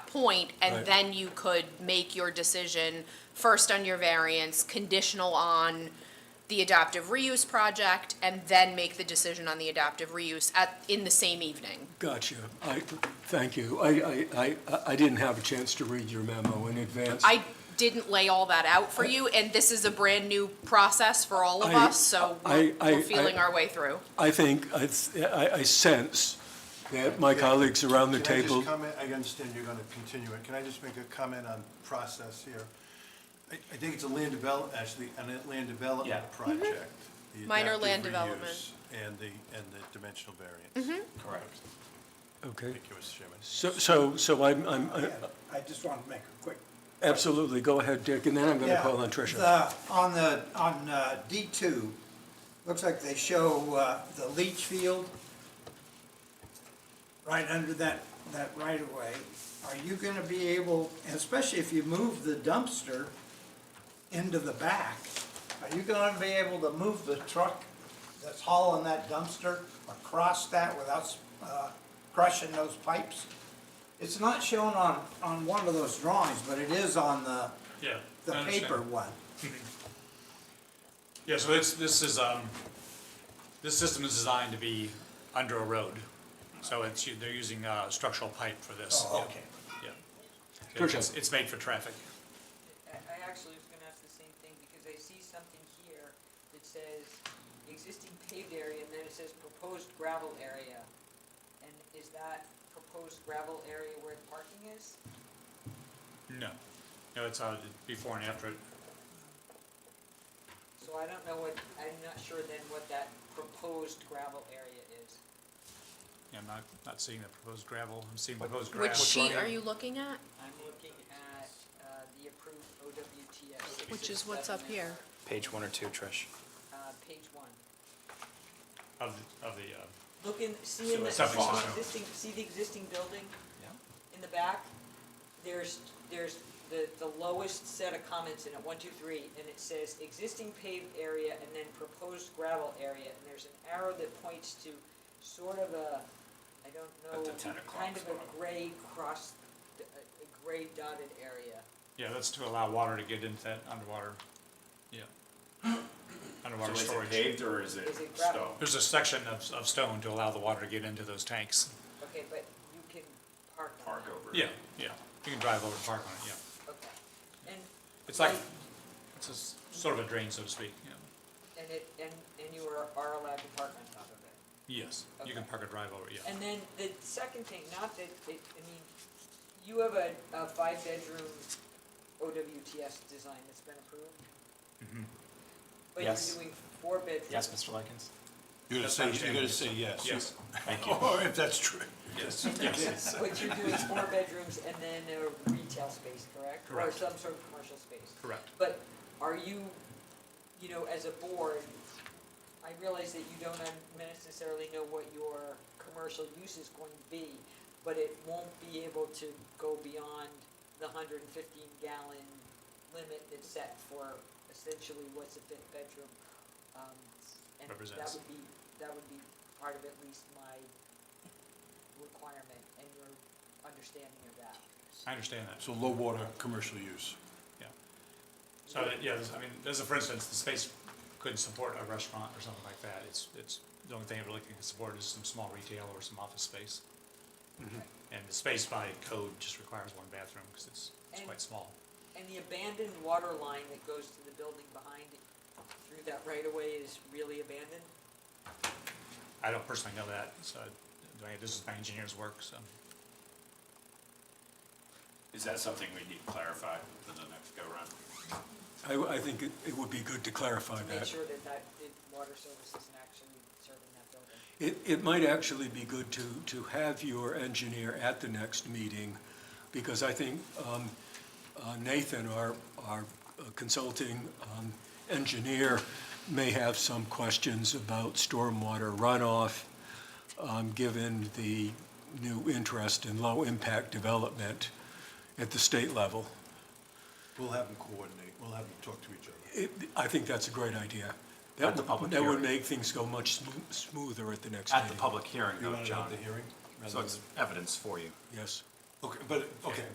point, and Right. then you could make your decision first on your variance, conditional on the adaptive reuse project, and then make the decision on the adaptive reuse at, in the same evening. Gotcha. I, thank you. I, I, I, I didn't have a chance to read your memo in advance. I didn't lay all that out for you, and this is a brand-new process for all of I- us, so I- we're I- we're feeling I- our way through. I think, I, I I sense that my colleagues around the Can I table. just comment, I understand you're gonna continue it, can I just make a comment on process here? I, I think it's a land develop, actually, an land Yeah. development project. the Mm-hmm. Minor adaptive land reuse development. Mm-hmm. And the, and the dimensional variance. Correct. Okay. Thank you, Mr. Chairman. So, so, so I'm, I'm, I- I just want to make a quick. absolutely. Go ahead, Dick, and then I'm going to Yeah, call on Tricia. the- On the, on uh, D2, looks like they show uh, the leach field right under that, that right-of-way. Are you going to be able, especially if you move the dumpster into the back, are you going to be able to move the truck that's hauling that dumpster across that without uh, crushing those pipes? It's not shown on, on one of those drawings, but it is on the, Yeah. the I understand. paper one. Yeah, so this, this is, um, this system is designed to be under a road. So it's, they're using, uh, structural pipe for this. Oh, Yeah. okay. Yeah. Sure, It's, sure. it's made for traffic. I I actually was gonna ask the same thing, because I see something here that says existing paved area, and then it says proposed gravel area. And is that proposed gravel area where the parking is? No. No, it's, uh, before and after. So I don't know what, I'm not sure then what that proposed gravel area is. Yeah, I'm not, not seeing the proposed gravel. I'm seeing proposed gravel. Which sheet are you looking at? I'm looking at, uh, the approved OWTS. Which is what's up 667, here. Page one or two, Trish. Uh, page one. Of, the- of the, uh, Look in, see in So the, it's see not the fixed. existing, see the existing building? Yeah. In the back, there's, there's the, the lowest set of comments in it, one, two, three, and it says existing paved area and then proposed gravel area, and there's an arrow that points to sort of a, I don't At know, the 10 o'clock kind of spot. a gray cross, a a gray dotted area. yeah, that's to allow water to get into that underwater. Yeah. Underwater storage. or is Is it gravel? There's a section of, of stone to allow the water to get into those tanks. Okay, but you can park on that. over? Yeah, yeah. You can drive over and park on it, yeah. Okay. And It's like, Right. it's a s- sort of a drain, so to speak, yeah. And it, and, and you are, are allowed to park on top of it. Yes, you can Okay. park a drive over, yeah. And then the second thing, not that, it, I mean, you have a, a five-bedroom OWTS design that's been approved? But Yes. you're doing four bedrooms? Yes, Mr. Likens? You're gonna That's say, not you're gonna changed. say yes. Yes, Thank you. Or if that's true. yes, yes, But you're doing four bedrooms and then a retail space, correct? Correct. Or some sort of commercial space? correct. But are you, you know, as a board, I realize that you don't necessarily know what your commercial use is going to be, but it won't be able to go beyond the hundred and fifteen gallon limit that's set for essentially what's a fifth bedroom. um, And that Represents. would be, that would be part of at least my requirement and your understanding of that. I understand that. So low water, commercial use. So, that- yeah, this- I mean, there's a, for instance, the space couldn't support a restaurant or something like that. It's, it's, the only thing it really can support is some small retail or some office space. Mm-hmm. And the space by code just requires one bathroom, because it's, it's And- quite small. And the abandoned water line that goes to the building behind it through that right of way is really abandoned? I don't personally know that, so, I- this is my engineer's work, so. Is that something we need clarified for the next go-round? I, I think it, it would be good to clarify To make that. sure that that, that water service isn't actually serving that building. It, it might actually be good to, to have your engineer at the next meeting, because I think um, uh, Nathan, our, our uh, consulting um, engineer, may have some questions about stormwater runoff, um, given the new interest in low-impact development at the state level. We'll have them coordinate, we'll have them talk to each other. It, I think that's a great idea. That At the would- public That would hearing. make things go much smoo- smoother at the next meeting. At the public hearing You though, wanna have John. the hearing? rather So it's than- evidence for you. Yes. Okay, but, okay,